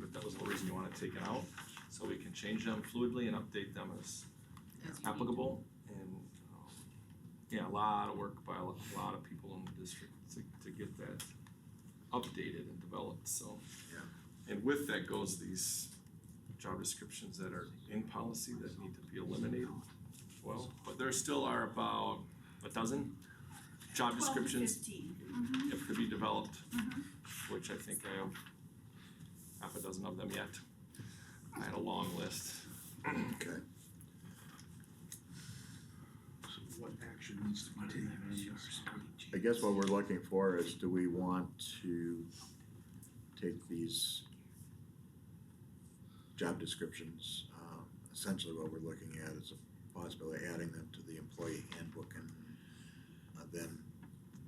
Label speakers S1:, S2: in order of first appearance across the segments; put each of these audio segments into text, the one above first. S1: but that was the reason you want it taken out, so we can change them fluidly and update them as
S2: As you need.
S1: applicable. And, um, yeah, a lot of work by a lo- a lot of people in the district to, to get that updated and developed, so. And with that goes these job descriptions that are in policy that need to be eliminated. Well, but there still are about a dozen job descriptions if could be developed, which I think I have half a dozen of them yet. I had a long list.
S3: Okay.
S4: So what action needs to be taken on this?
S3: I guess what we're looking for is, do we want to take these job descriptions, um, essentially what we're looking at is a possibility of adding them to the employee handbook and uh, then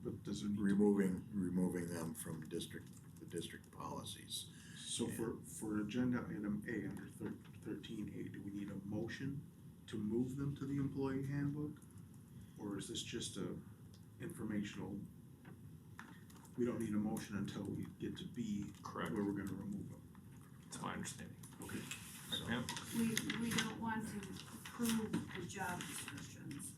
S4: But does it need,
S3: removing, removing them from district, the district policies.
S4: so for, for agenda item A under thir- thirteen A, do we need a motion to move them to the employee handbook? Or is this just a informational? We don't need a motion until we get to B, where
S1: Correct.
S4: we're gonna remove them.
S1: That's my understanding.
S4: Okay.
S3: So,
S1: Ma'am?
S2: We, we don't want to approve the job descriptions,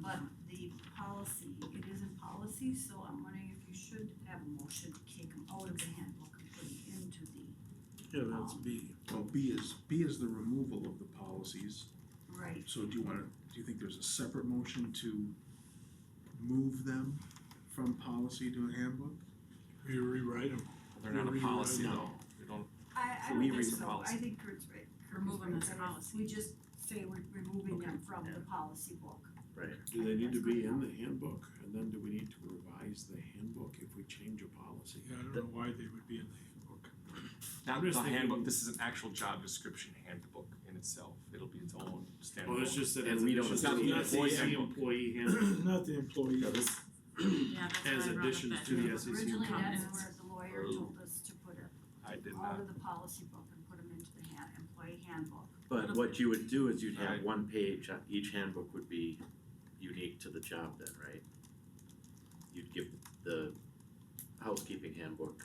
S2: but the policy, it is in policy, so I'm wondering if you should have a motion to kick them out of the handbook and put it into the,
S4: Yeah,
S2: that's
S4: B. Well, B is, B is the removal of the policies,
S2: right,
S4: so do you wanna, do you think there's a separate motion to move them from policy to a handbook?
S5: We rewrite them.
S1: They're not a policy though.
S4: No.
S1: They don't,
S2: I,
S1: So
S2: I don't
S1: we
S2: think
S1: read the
S2: so, I
S1: policy.
S2: think Kurt's right.
S6: Remove them as a
S2: Kurt's right.
S6: policy.
S2: We just say we're removing them from the policy book.
S5: Do they need to be in the handbook? And then do we need to revise the handbook if we change a policy? Yeah, I don't know why they would be in the
S1: not
S5: I'm just
S1: the
S5: thinking-
S1: handbook, this is an actual job description handbook in itself. It'll be its own
S5: handbook.
S1: standalone.
S5: Well, it's just that.
S1: And we don't-
S5: it's just
S1: Not the employee
S5: SEC
S1: handbook.
S5: employee handbook. Not the employee.
S1: Yeah, this,
S6: Yeah, that's
S5: As
S6: why I brought up
S5: additions
S6: that
S5: to the
S6: handbook.
S7: E,
S5: SEC
S2: Originally, that's
S6: comments.
S2: where the lawyer
S1: Oh.
S2: told us to put it
S1: I did
S2: out
S1: not,
S2: of the policy book and put them into the hand, employee handbook.
S7: But what you would do is you'd have
S1: Alright.
S7: one page, uh, each handbook would be unique to the job then, right? You'd give the housekeeping handbook,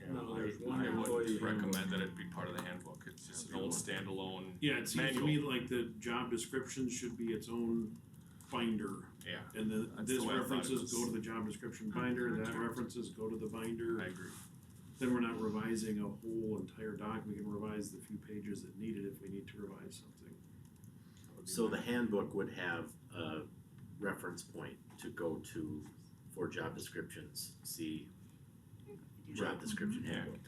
S1: yeah,
S5: No, there's
S1: I,
S5: one
S1: I
S5: employee
S1: would recommend that it be part of the handbook. It's just an old standalone.
S5: Yeah, it seems to me
S1: Manual.
S5: like the job description should be its own binder.
S1: Yeah.
S5: And then
S1: That's the
S5: this
S1: way I thought it
S5: references
S1: was.
S5: go to the job description binder, that references go to the binder.
S1: I agree.
S5: Then we're not revising a whole entire doc, we can revise the few pages that needed if we need to revise something. That would be
S7: so
S5: my-
S7: the handbook would have a reference point to go to for job descriptions, see job description
S1: Yeah,
S7: handbook.